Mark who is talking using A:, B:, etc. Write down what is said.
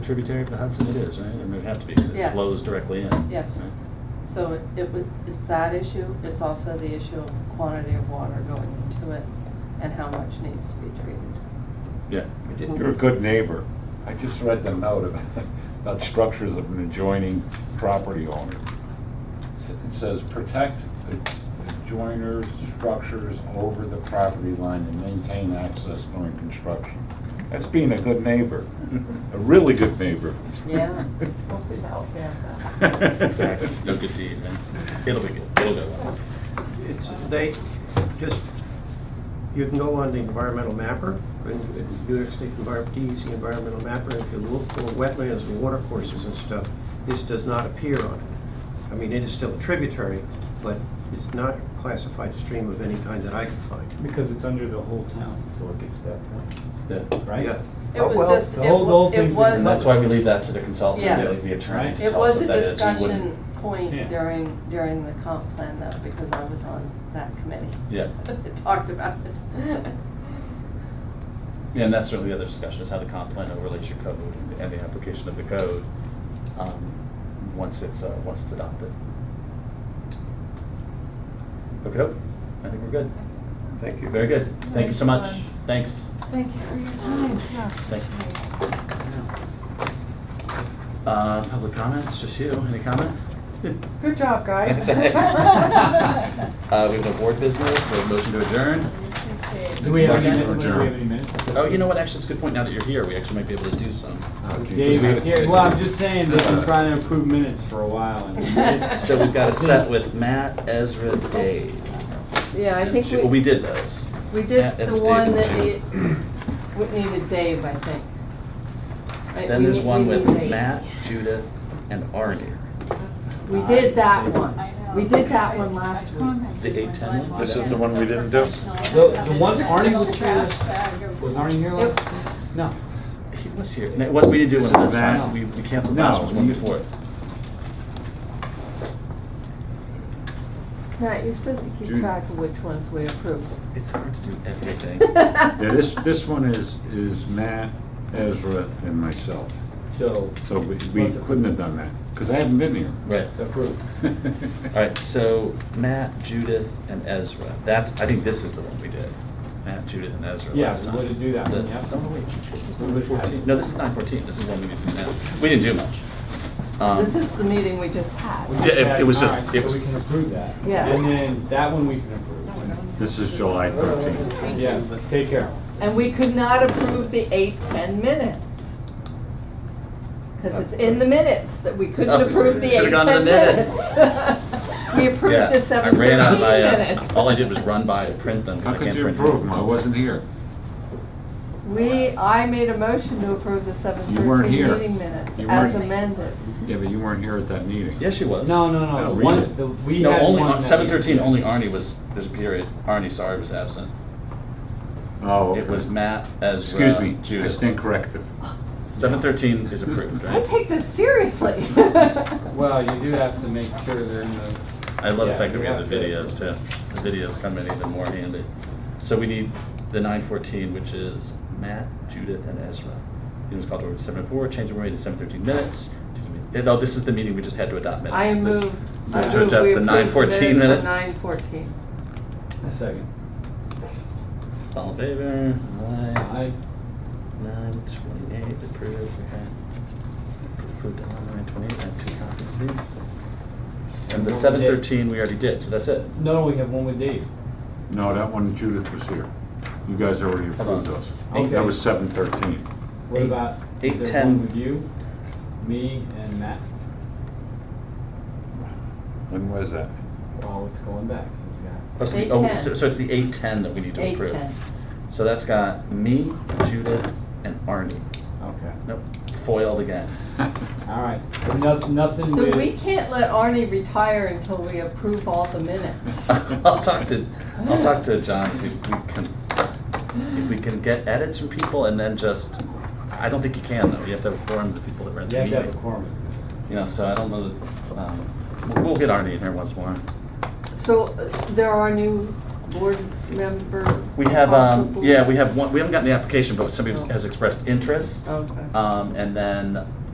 A: tributary of the Hudson it is, right? I mean, it would have to be, because it
B: Yes.
A: flows directly in.
B: Yes.
A: right?
B: So it- it would, it's that issue, it's also the issue of quantity of water going into it and how much needs to be treated.
A: Yeah.
C: We did-
D: You're a good neighbor. I just read the note about, about structures of an adjoining property owner. It says, protect adjoiners' structures over the property line and maintain access during construction. That's being a good neighbor, a really good neighbor.
B: Yeah.
E: We'll see how it pans out.
A: Exactly. No good deed, man. It'll be good. It'll go well.
C: It's, they, just, you can go on the environmental mapper, and and New York State Envi- DEC environmental mapper, and if you look for wetlands and water courses and stuff, this does not appear on it. I mean, it is still a tributary, but it's not a classified stream of any kind that I can find.
F: Because it's under the whole town until it gets to that point,
A: Yeah.
F: right?
C: Yeah.
B: It
F: Oh,
B: was
F: well,
B: just,
F: the
B: it
F: whole- the
B: wa-
F: whole
B: it
F: thing's
B: was.
A: And that's why we leave that to the consultant,
B: Yes.
A: really, the attorney to
B: It
A: tell us
B: was
A: what
B: a
A: that is. We wouldn't-
B: discussion point
F: Yeah.
B: during, during the comp plan though, because I was on that committee.
A: Yeah.
B: It Talked about it.
A: Yeah, and that's sort of the other discussion, is how the comp plan overlays your code and the application of the code, um, once it's, uh, once it's adopted. Okay, I think we're good.
C: Thank
A: Very good. Thank you so much. Thanks.
E: Thank you for your time, yeah.
A: Thanks. Uh, public comments, just you, any comment?
E: Good job, guys.
A: Uh, we have no board business, we have a motion to adjourn.
F: Do we have any,
D: Second
F: minutes? do we
D: adjourn.
F: have any minutes?
A: Oh, you know what, actually, it's a good point, now that you're here, we actually might be able to do some.
F: Dave is here, well, I'm just saying, they've been trying to improve minutes for a while. and-
A: So we've got a set with Matt, Ezra, Dave.
B: Yeah, I
A: and
B: think
A: Ju-
B: we.
A: Well, we did those.
B: We
A: Matt,
B: did the
A: Ezra, Dave,
B: one
A: and
B: that
A: Ju.
B: need- we needed Dave, I think. Right,
A: Then
B: uh, we
A: there's
B: need-
A: one
B: we
A: with
B: need Dave.
A: Matt, Judith, and Arnie.
B: We did that
E: I
B: one.
E: know.
B: We did that one last week.
A: The eight ten one?
D: This is the one we didn't do?
F: The, the one Arnie was here, was Arnie here
B: Yep.
F: last? No.
A: He was here. And it was, we didn't do one last
D: This is
A: time,
F: Matt.
A: we we canceled last
D: No,
A: one, one
D: you-
A: before. it.
G: Matt, you're supposed to keep
D: Judy.
G: track of which ones we approve.
A: It's hard to do everything.
D: Yeah, this, this one is, is Matt, Ezra, and myself.
F: So,
D: So we we couldn't have done that, because I haven't been here.
A: Right.
F: it's approved.
A: All right, so Matt, Judith, and Ezra. That's, I think this is the one we did. Matt, Judith, and Ezra
F: Yeah,
A: last
F: we
A: time.
F: would've do that one,
A: The-
F: yeah.
A: Oh, no, wait, this is number 14. No, this is 914, this is one we did now. We didn't do much. Um,
G: This is the meeting we just had.
F: We
A: Yeah, it-
F: checked,
A: it was
F: all
A: just-
F: right,
A: it
F: so
A: was-
F: we can approve that.
G: Yeah.
F: And then that one we can approve.
D: This is July 13th.
F: Yeah, but take care.
G: And we could not approve the eight, 10 minutes. Because it's in the minutes that we couldn't
A: Oh,
G: approve the eight,
A: should've
G: 10
A: gone to the
G: minutes. We
A: yeah,
G: approved the
A: I
G: seven, 13
A: ran out of my, uh,
G: minutes.
A: All I did was run by to print them, because I
D: How could
A: can't
D: you
A: print.
D: approve them? I wasn't here.
G: We, I made a motion to approve the seven,
D: You weren't
G: 13
D: here.
G: meeting minutes
D: You
G: as
D: weren't-
G: amended.
D: Yeah, but you weren't here at that meeting.
A: Yes, she was.
F: No, no,
D: No,
F: no, the
D: read
F: one,
D: it.
F: the, we
A: No,
F: had
A: only,
F: one.
A: on
F: that-
A: 713, only Arnie was, there's a period, Arnie, sorry, was absent.
D: Oh,
A: It was
D: okay.
A: Matt, Ezra,
D: Excuse me, I
A: Judith.
D: stand corrected.
A: 713 is approved,
G: I
A: right?
G: take this seriously.
F: Well, you do have to make sure they're in the.
A: I love the
F: Yeah,
A: fact that
F: we
A: we have the
F: have
A: videos
F: to-
A: too. The videos come in even more handy. So we need the nine fourteen, which is Matt, Judith, and Ezra. It was called order seven oh four, change the rate to seven thirteen minutes. No, Oh, this is the meeting we just had to adopt minutes.
G: I
A: This-
G: move,
A: To
G: I move we
A: adopt
G: approve the
A: the nine fourteen minutes.
G: Nine fourteen.
F: A second.
A: All in favor? Aye.
F: I,
A: Nine twenty-eight, approved, okay. Approved on nine twenty-eight, I have two copies of these. And the
F: Well, we did.
A: seven thirteen we already did, so that's it.
F: no, we have one with Dave.
D: No, that one Judith was here. You guys already approved those.
F: Okay.
D: That was 713.
F: What
A: Eight-
F: about,
A: eight,
F: is there
A: ten.
F: one with you, me, and Matt?
D: When was that?
F: Well, it's going back. He's got-
A: Oh, so the-
B: Eight
A: oh,
B: ten.
A: so, so it's the eight ten that we need to
B: Eight
A: approve.
B: ten.
A: So that's got me, Judith, and Arnie.
F: Okay,
A: Nope, foiled again.
F: all right. So no- Nothing
G: So we
F: with,
G: can't let Arnie retire until we approve all the minutes.
A: I'll talk to, I'll talk to John, see if we can, if we can get edits from people and then just, I don't think you can though, you have to have a quorum of the people that were at
F: you
A: the
F: have to have a
A: meeting.
F: quorum.
A: You know, so I don't know, that, um, we'll, we'll get Arnie in here once more.
G: So uh, there are new board member.
A: We have, um,
G: possible-
A: yeah, we have one, we haven't gotten the application, but somebody
G: Oh.
A: has expressed interest.
G: Okay.
A: Um, and then